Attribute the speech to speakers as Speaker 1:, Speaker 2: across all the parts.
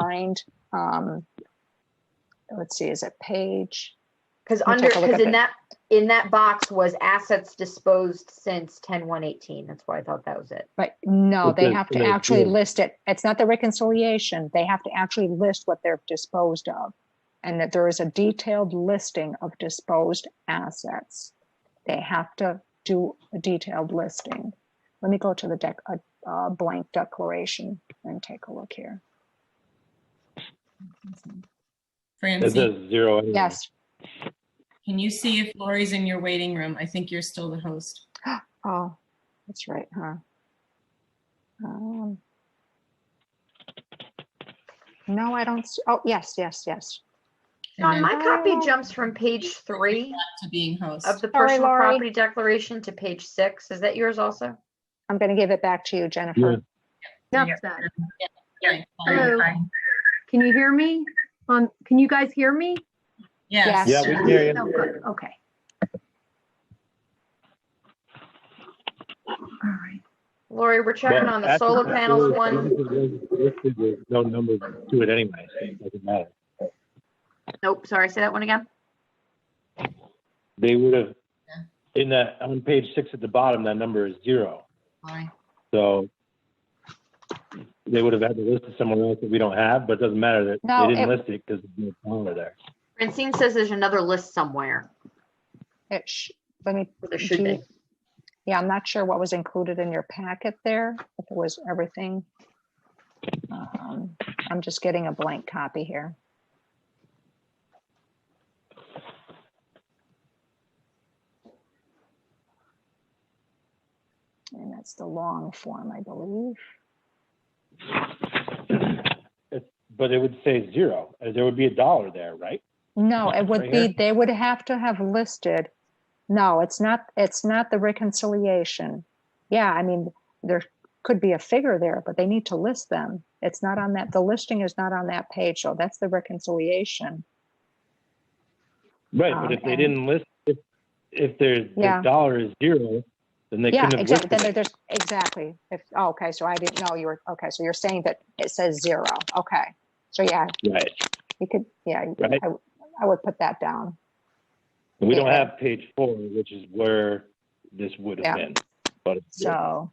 Speaker 1: lined. Um, let's see, is it page?
Speaker 2: Because
Speaker 1: me
Speaker 2: under,
Speaker 1: take a look at
Speaker 2: because
Speaker 1: it.
Speaker 2: in that, in that box was assets disposed since ten one eighteen. That's why I thought that was it.
Speaker 1: But no,
Speaker 3: But
Speaker 1: they
Speaker 3: then-
Speaker 1: have to
Speaker 3: then it
Speaker 1: actually
Speaker 3: will-
Speaker 1: list it. It's not the reconciliation. They have to actually list what they're disposed of. And that there is a detailed listing of disposed assets. They have to do a detailed listing. Let me go to the dec, uh, uh, blank declaration and take a look here.
Speaker 3: It
Speaker 4: Francie,
Speaker 3: says zero. anyway.
Speaker 1: Yes,
Speaker 4: can you see if Lori's in your waiting room? I think you're still the host.
Speaker 1: Oh, that's right, huh? Um, no, I don't. See, oh, yes, yes, yes.
Speaker 2: Dawn,
Speaker 4: And
Speaker 2: my copy
Speaker 1: Oh.
Speaker 2: jumps from page three
Speaker 4: back To being host.
Speaker 2: of the
Speaker 1: Sorry,
Speaker 2: personal
Speaker 1: Lori.
Speaker 2: property declaration to page six. Is that yours also?
Speaker 1: I'm going to give it back to you,
Speaker 3: Yeah.
Speaker 1: Jennifer.
Speaker 4: Yeah.
Speaker 5: That's better.
Speaker 4: Okay, fine.
Speaker 5: Hello. Can you hear me? Um, can you guys hear me?
Speaker 4: Yes.
Speaker 3: Yeah,
Speaker 1: Yes.
Speaker 3: we can hear
Speaker 5: Oh,
Speaker 3: you.
Speaker 5: good, okay. All right.
Speaker 2: Lori, we're checking
Speaker 3: Well,
Speaker 2: on the
Speaker 3: that's-
Speaker 2: solar
Speaker 3: that's
Speaker 2: panels
Speaker 3: really-
Speaker 2: one.
Speaker 3: There's No numbers to it anyway, so it doesn't matter.
Speaker 2: Nope, sorry, say that one again.
Speaker 3: They would have, in that, on page six at the bottom, that number is zero.
Speaker 4: Fine.
Speaker 3: So they would have had to list it somewhere else that we don't have, but it doesn't matter that
Speaker 1: No,
Speaker 3: they didn't
Speaker 1: it-
Speaker 3: list it because there's no dollar there.
Speaker 2: Francine says there's another list somewhere.
Speaker 1: It sh- let me.
Speaker 2: There should
Speaker 1: do you-
Speaker 2: be.
Speaker 1: Yeah, I'm not sure what was included in your packet there, if it was everything. Um, I'm just getting a blank copy here. And that's the long form, I believe.
Speaker 3: But it would say zero. Uh, There would be a dollar there, right?
Speaker 1: No, it
Speaker 3: Right
Speaker 1: would
Speaker 3: here?
Speaker 1: be, they would have to have listed, no, it's not, it's not the reconciliation. Yeah, I mean, there could be a figure there, but they need to list them. It's not on that, the listing is not on that page, so that's the reconciliation.
Speaker 3: Right, but
Speaker 1: Um,
Speaker 3: if they
Speaker 1: and-
Speaker 3: didn't list, if, if their,
Speaker 1: Yeah.
Speaker 3: their dollar is zero, then they
Speaker 1: Yeah,
Speaker 3: couldn't have
Speaker 1: exactly,
Speaker 3: listed
Speaker 1: then
Speaker 3: it.
Speaker 1: there- there's, exactly, if, oh, okay, so I didn't know you were, okay, so you're saying that it says zero, okay. So yeah,
Speaker 3: Right.
Speaker 1: you could, yeah, you-
Speaker 3: Right.
Speaker 1: I, I would put that down.
Speaker 3: We don't
Speaker 1: Yeah.
Speaker 3: have page four, which is where this would have
Speaker 1: Yeah.
Speaker 3: been. But it's-
Speaker 1: So,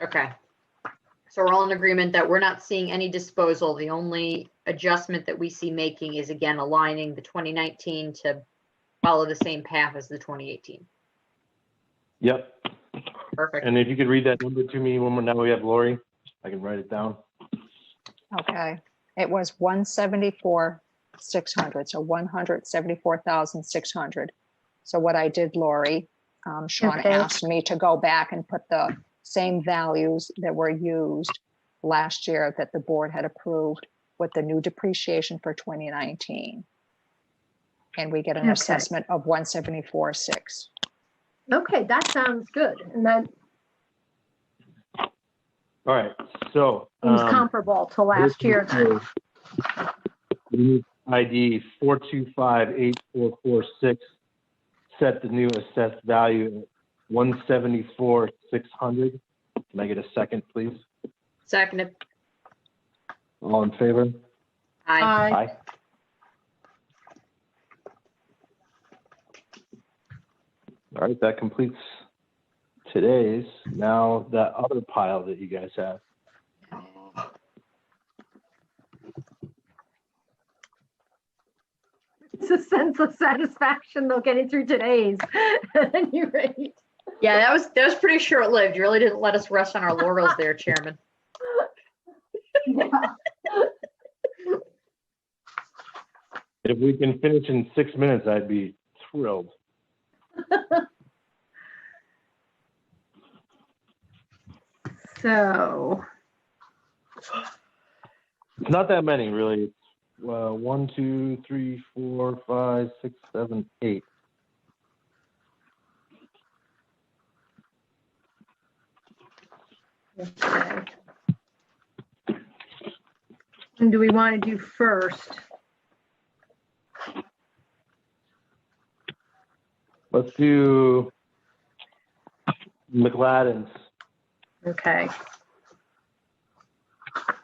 Speaker 2: Okay. So we're all in agreement that we're not seeing any disposal. The only adjustment that we see making is again aligning the 2019 to follow the same path as the 2018.
Speaker 3: Yep,
Speaker 2: Perfect.
Speaker 3: and if you could read that number to me one more, now we have Lori, I can write it down.
Speaker 1: okay, it was one seventy-four, six hundred, so one hundred seventy-four thousand, six hundred. So what I did, Lori, um, Shauna
Speaker 5: Okay.
Speaker 1: asked me to go back and put the same values that were used last year that the board had approved with the new depreciation for twenty nineteen. And we get an
Speaker 5: Okay.
Speaker 1: assessment of one seventy-four, six.
Speaker 5: Okay, that sounds good. And that
Speaker 3: All right, so.
Speaker 5: seems
Speaker 3: um,
Speaker 5: comparable to last
Speaker 3: this
Speaker 5: year.
Speaker 3: is, uh, the new ID four two five eight four four six, set the new assessed value at one seventy-four, six hundred. Can I get a second, please?
Speaker 2: Seconded.
Speaker 3: All in favor?
Speaker 2: Aye.
Speaker 5: Aye.
Speaker 3: Aye. All right, that completes today's. Now that other pile that you guys have.
Speaker 5: It's a sense of satisfaction though getting through today's at any rate.
Speaker 2: Yeah, that was, that was pretty short lived. You really didn't let us rest on our laurels there, Chairman.
Speaker 5: Yeah.
Speaker 3: If we can finish in six minutes, I'd be thrilled.
Speaker 5: So,
Speaker 3: It's not that many, really. It's uh, one, two, three, four, five, six, seven, eight.
Speaker 5: okay. And do we want to do first?
Speaker 3: Let's do McLaddens.
Speaker 5: Okay,